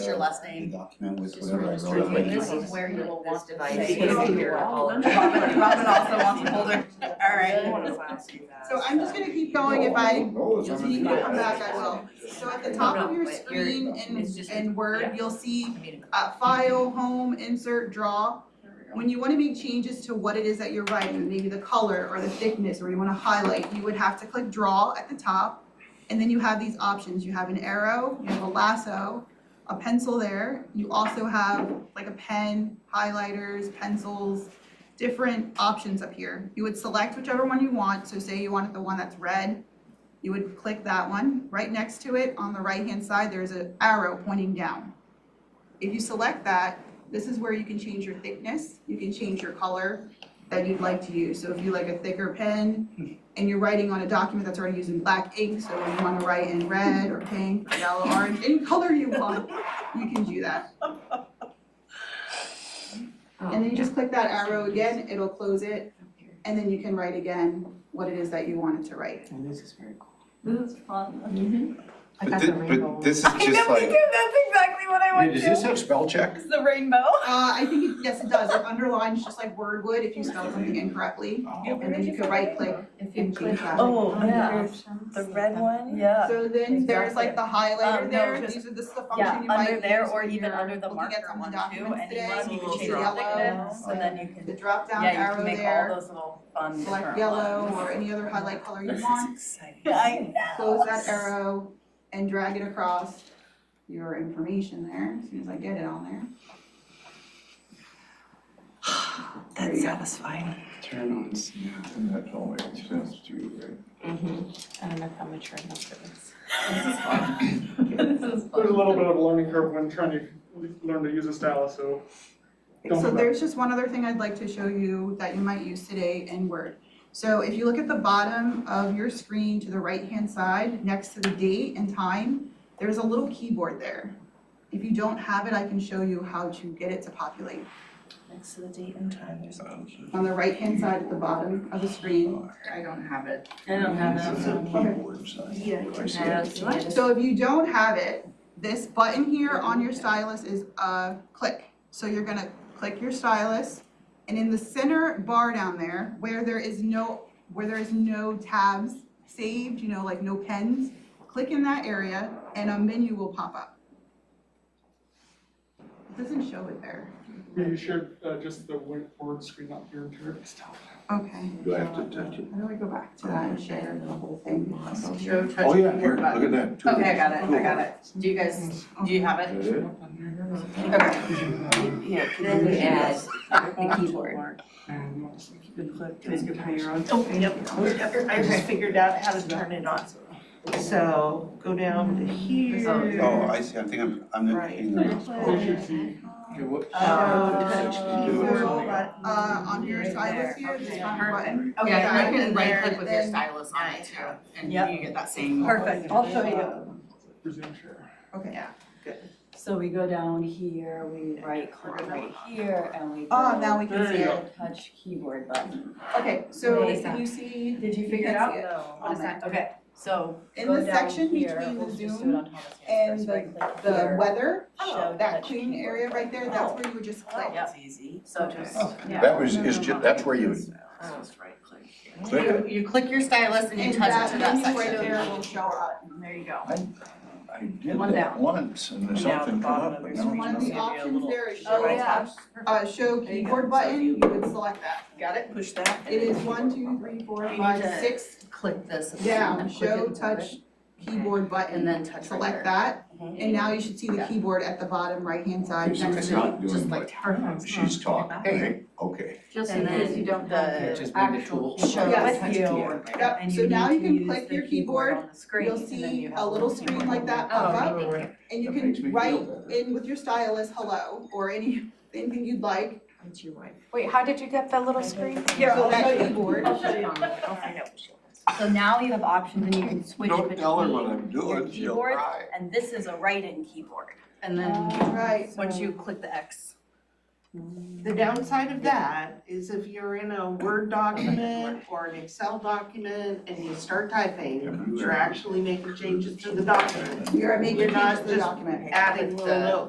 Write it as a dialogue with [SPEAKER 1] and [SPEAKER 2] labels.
[SPEAKER 1] your last
[SPEAKER 2] The
[SPEAKER 1] name?
[SPEAKER 2] document with
[SPEAKER 3] Just
[SPEAKER 2] whatever I
[SPEAKER 3] register
[SPEAKER 2] wrote.
[SPEAKER 3] you.
[SPEAKER 2] in it.
[SPEAKER 3] This is
[SPEAKER 4] where you will want to
[SPEAKER 3] buy
[SPEAKER 1] Say
[SPEAKER 3] tickets
[SPEAKER 1] it.
[SPEAKER 3] to your all-
[SPEAKER 1] Robin Robin also wants to hold her, all
[SPEAKER 3] I
[SPEAKER 1] right.
[SPEAKER 3] wanna flash you guys.
[SPEAKER 5] So I'm just gonna keep going if I,
[SPEAKER 2] No, it's not
[SPEAKER 5] if you
[SPEAKER 2] gonna be
[SPEAKER 5] come back, I
[SPEAKER 2] bad.
[SPEAKER 5] will. so at the
[SPEAKER 3] No,
[SPEAKER 5] top
[SPEAKER 3] no,
[SPEAKER 5] of your
[SPEAKER 3] but you're-
[SPEAKER 5] screen
[SPEAKER 3] it's
[SPEAKER 5] in,
[SPEAKER 3] just-
[SPEAKER 5] in Word,
[SPEAKER 3] yeah.
[SPEAKER 5] you'll see
[SPEAKER 3] I mean,
[SPEAKER 5] uh, file, home, insert, draw. When you wanna make changes to what it is that you're writing, maybe the color or the thickness, or you wanna highlight, you would have to click draw at the top. And then you have these options, you have an arrow, you have a lasso, a pencil there, you also have like a pen, highlighters, pencils, different options up here. You would select whichever one you want, so say you wanted the one that's red, you would click that one. Right next to it, on the right-hand side, there's an arrow pointing down. If you select that, this is where you can change your thickness, you can change your color that you'd like to use. So if you like a thicker pen and you're writing on a document that's already using black ink, so you wanna write in red or pink or yellow, orange, any color you want, you can do that. And then you just click that arrow again, it'll close it, and then you can write again what it is that you wanted to write.
[SPEAKER 3] And this is very cool.
[SPEAKER 4] I
[SPEAKER 2] But
[SPEAKER 4] got
[SPEAKER 2] thi-
[SPEAKER 4] the rainbow.
[SPEAKER 2] But this is just like.
[SPEAKER 1] that's exactly what I
[SPEAKER 2] Wait, does this have spell check?
[SPEAKER 1] It's the rainbow.
[SPEAKER 5] Uh, I think, it- yes, it does, it underlines just like Word would if you spell something incorrectly, and then you could right click
[SPEAKER 4] If you
[SPEAKER 5] and change
[SPEAKER 4] click
[SPEAKER 5] that.
[SPEAKER 6] Oh,
[SPEAKER 4] yeah.
[SPEAKER 6] The red
[SPEAKER 5] Oh,
[SPEAKER 6] one?
[SPEAKER 1] Yeah.
[SPEAKER 5] So then there's like the
[SPEAKER 6] Um,
[SPEAKER 5] highlighter
[SPEAKER 6] no,
[SPEAKER 5] there,
[SPEAKER 6] just-
[SPEAKER 5] these are this is the
[SPEAKER 6] Yeah,
[SPEAKER 5] function you might
[SPEAKER 6] under there
[SPEAKER 5] use
[SPEAKER 6] or
[SPEAKER 5] when
[SPEAKER 6] even
[SPEAKER 5] you're
[SPEAKER 6] under the
[SPEAKER 5] looking at
[SPEAKER 6] marker
[SPEAKER 5] some
[SPEAKER 6] one too,
[SPEAKER 5] documents today.
[SPEAKER 6] anyone, you
[SPEAKER 5] Little
[SPEAKER 6] can change the
[SPEAKER 5] yellow,
[SPEAKER 6] thickness, and then you
[SPEAKER 5] The
[SPEAKER 6] can,
[SPEAKER 5] drop down
[SPEAKER 6] yeah, you
[SPEAKER 5] arrow
[SPEAKER 6] can make all
[SPEAKER 5] there,
[SPEAKER 6] those little fun different
[SPEAKER 5] select yellow
[SPEAKER 6] ones.
[SPEAKER 5] or any other highlight color you
[SPEAKER 6] This
[SPEAKER 5] want,
[SPEAKER 6] is exciting.
[SPEAKER 5] I close that arrow and drag it across your information there, as soon as I get it on there. There
[SPEAKER 6] That's
[SPEAKER 5] you go.
[SPEAKER 6] satisfying.
[SPEAKER 2] Turn on snap, and that only makes sense to you, right?
[SPEAKER 4] I don't know if I'm mature enough for this.
[SPEAKER 1] This is
[SPEAKER 7] There's a
[SPEAKER 1] fun.
[SPEAKER 7] little bit of a learning curve when trying to learn to use a stylus, so. don't
[SPEAKER 5] So
[SPEAKER 7] give up.
[SPEAKER 5] there's just one other thing I'd like to show you that you might use today in Word. So if you look at the bottom of your screen to the right-hand side, next to the date and time, there's a little keyboard there. If you don't have it, I can show you how to get it to populate.
[SPEAKER 6] Next to the date and time, there's a
[SPEAKER 5] On the right-hand side at the bottom of the screen.
[SPEAKER 1] I don't have it.
[SPEAKER 4] I don't have
[SPEAKER 2] It's
[SPEAKER 4] that.
[SPEAKER 2] a keyboard sign.
[SPEAKER 5] Yeah.
[SPEAKER 2] I see
[SPEAKER 4] I don't
[SPEAKER 2] it.
[SPEAKER 4] see it.
[SPEAKER 5] So if you don't have it, this button here on your stylus is a click. So you're gonna click your stylus and in the center bar down there where there is no, where there is no tabs saved, you know, like no pens, click in that area and a menu will pop up. It doesn't show it there.
[SPEAKER 7] Yeah, you shared uh, just the whiteboard screen up here and here.
[SPEAKER 5] Okay,
[SPEAKER 8] Do I have to touch it?
[SPEAKER 5] how do I go back to that and share the whole thing?
[SPEAKER 1] Show touch
[SPEAKER 8] Oh, yeah,
[SPEAKER 1] more
[SPEAKER 8] here,
[SPEAKER 1] button.
[SPEAKER 8] look at that. two
[SPEAKER 1] Okay, I got it, I
[SPEAKER 8] buttons.
[SPEAKER 1] got it. Do you guys, do you have it?
[SPEAKER 8] Is that it?
[SPEAKER 1] Okay.
[SPEAKER 3] Yeah.
[SPEAKER 6] Then we add the keyboard.
[SPEAKER 3] Yep, I just figured out how to turn it on. So go down to here.
[SPEAKER 2] Oh, I see, I think I'm, I'm not
[SPEAKER 3] Right.
[SPEAKER 2] reading them.
[SPEAKER 7] They should see.
[SPEAKER 2] Okay, what-
[SPEAKER 3] Uh,
[SPEAKER 2] Sixty-two or something.
[SPEAKER 5] Uh, on your
[SPEAKER 3] Right
[SPEAKER 5] stylus
[SPEAKER 3] there,
[SPEAKER 5] here, this
[SPEAKER 3] okay.
[SPEAKER 5] front button.
[SPEAKER 1] Okay,
[SPEAKER 5] Yeah,
[SPEAKER 1] and you
[SPEAKER 5] right in
[SPEAKER 1] can right
[SPEAKER 5] there,
[SPEAKER 1] click with your
[SPEAKER 5] then-
[SPEAKER 1] stylus on it too, and
[SPEAKER 6] Yep.
[SPEAKER 1] you get that same.
[SPEAKER 6] Perfect, I'll show you.
[SPEAKER 7] Resume share.
[SPEAKER 5] Okay.
[SPEAKER 4] So we go down here, we right click right here, and we
[SPEAKER 5] Oh, now we can
[SPEAKER 4] go
[SPEAKER 5] see it.
[SPEAKER 4] touch keyboard button.
[SPEAKER 5] Okay, so
[SPEAKER 4] Amazing.
[SPEAKER 5] if you see
[SPEAKER 4] Did you
[SPEAKER 5] figure it out?
[SPEAKER 4] On that, okay, so
[SPEAKER 5] in
[SPEAKER 4] go
[SPEAKER 5] the
[SPEAKER 4] down
[SPEAKER 5] section
[SPEAKER 4] here,
[SPEAKER 5] between
[SPEAKER 4] we'll
[SPEAKER 5] the
[SPEAKER 4] just do
[SPEAKER 5] Zoom
[SPEAKER 4] it on Thomas Hands
[SPEAKER 5] and
[SPEAKER 4] first, right click
[SPEAKER 5] the
[SPEAKER 4] here,
[SPEAKER 5] weather, oh,
[SPEAKER 4] show
[SPEAKER 5] that
[SPEAKER 4] touch
[SPEAKER 5] green
[SPEAKER 4] keyboard.
[SPEAKER 5] area right there, that's where you would just click.
[SPEAKER 4] Yeah.
[SPEAKER 6] easy.
[SPEAKER 4] So just,
[SPEAKER 2] That was, is just, that's where you would
[SPEAKER 6] Just right click.
[SPEAKER 2] click it.
[SPEAKER 1] You, you click your stylus and you
[SPEAKER 5] And
[SPEAKER 1] touch it to that
[SPEAKER 5] that menu right
[SPEAKER 1] section.
[SPEAKER 5] there will show up.
[SPEAKER 1] There you go.
[SPEAKER 2] I did
[SPEAKER 4] One
[SPEAKER 2] that
[SPEAKER 4] down.
[SPEAKER 2] once and there's
[SPEAKER 6] Now the
[SPEAKER 2] something come
[SPEAKER 6] bottom
[SPEAKER 2] up,
[SPEAKER 6] of
[SPEAKER 2] but
[SPEAKER 6] your
[SPEAKER 2] now
[SPEAKER 6] screen
[SPEAKER 5] One of
[SPEAKER 2] it's
[SPEAKER 5] the
[SPEAKER 2] not.
[SPEAKER 5] options there is
[SPEAKER 4] Oh,
[SPEAKER 5] show
[SPEAKER 4] yeah.
[SPEAKER 5] touch, uh, show
[SPEAKER 6] There you go.
[SPEAKER 5] keyboard
[SPEAKER 6] So
[SPEAKER 5] button,
[SPEAKER 6] you-
[SPEAKER 5] you would select that.
[SPEAKER 1] Got it?
[SPEAKER 6] Push that. and
[SPEAKER 5] It is
[SPEAKER 6] then
[SPEAKER 5] one, two,
[SPEAKER 6] keyboard.
[SPEAKER 5] three, four,
[SPEAKER 1] need
[SPEAKER 5] five,
[SPEAKER 1] to-
[SPEAKER 5] six,
[SPEAKER 1] Click this. and
[SPEAKER 5] down,
[SPEAKER 1] then click it
[SPEAKER 5] show
[SPEAKER 1] and
[SPEAKER 5] touch keyboard
[SPEAKER 1] And
[SPEAKER 5] button,
[SPEAKER 1] then touch right
[SPEAKER 5] select
[SPEAKER 1] there.
[SPEAKER 5] that.
[SPEAKER 6] Mhm.
[SPEAKER 5] And now you should see the
[SPEAKER 1] Yeah.
[SPEAKER 5] keyboard at the bottom right-hand side
[SPEAKER 2] Okay, so
[SPEAKER 5] next
[SPEAKER 2] it's
[SPEAKER 5] to it.
[SPEAKER 2] not doing
[SPEAKER 1] Just like
[SPEAKER 2] what
[SPEAKER 1] turn.
[SPEAKER 2] she's talking, right? Okay.
[SPEAKER 4] just
[SPEAKER 1] And
[SPEAKER 4] in case
[SPEAKER 1] then
[SPEAKER 4] you don't
[SPEAKER 1] the-
[SPEAKER 4] have your
[SPEAKER 8] Just maybe
[SPEAKER 4] actual.
[SPEAKER 6] tool.
[SPEAKER 4] keyboard.
[SPEAKER 5] Yeah.
[SPEAKER 4] Touch
[SPEAKER 6] Yeah.
[SPEAKER 4] keyboard.
[SPEAKER 5] Yep,
[SPEAKER 6] And
[SPEAKER 5] so
[SPEAKER 6] you
[SPEAKER 5] now
[SPEAKER 6] need
[SPEAKER 5] you
[SPEAKER 6] to
[SPEAKER 5] can
[SPEAKER 6] use
[SPEAKER 5] click
[SPEAKER 6] the
[SPEAKER 5] your
[SPEAKER 6] keyboard
[SPEAKER 5] keyboard,
[SPEAKER 6] on the screen,
[SPEAKER 5] you'll
[SPEAKER 6] and then
[SPEAKER 5] see
[SPEAKER 6] you have
[SPEAKER 5] a little screen like Oh, that pop up. And you
[SPEAKER 2] Oh, That makes me
[SPEAKER 5] can
[SPEAKER 2] feel
[SPEAKER 5] write
[SPEAKER 2] better.
[SPEAKER 5] in with your stylus, hello, or any, anything you'd like.
[SPEAKER 6] It's your wife.
[SPEAKER 4] Wait, how did you get that little screen?
[SPEAKER 5] Here,
[SPEAKER 1] I'll
[SPEAKER 5] that
[SPEAKER 1] show you.
[SPEAKER 5] keyboard.
[SPEAKER 1] I'll show you.
[SPEAKER 6] I'll find out what she wants.
[SPEAKER 4] So now you have options and you can switch
[SPEAKER 8] Don't tell her what
[SPEAKER 4] between,
[SPEAKER 8] I'm doing, she'll
[SPEAKER 6] keyboard
[SPEAKER 8] cry.
[SPEAKER 6] And this is a write-in keyboard.
[SPEAKER 1] And then,
[SPEAKER 5] Right.
[SPEAKER 1] once you click the X.
[SPEAKER 9] The downside of that is if you're in a Word document or an Excel document and you start typing, you're actually making changes to the document,
[SPEAKER 5] You're making
[SPEAKER 9] You're not
[SPEAKER 5] changes to the
[SPEAKER 9] just
[SPEAKER 5] document.
[SPEAKER 9] adding little notes.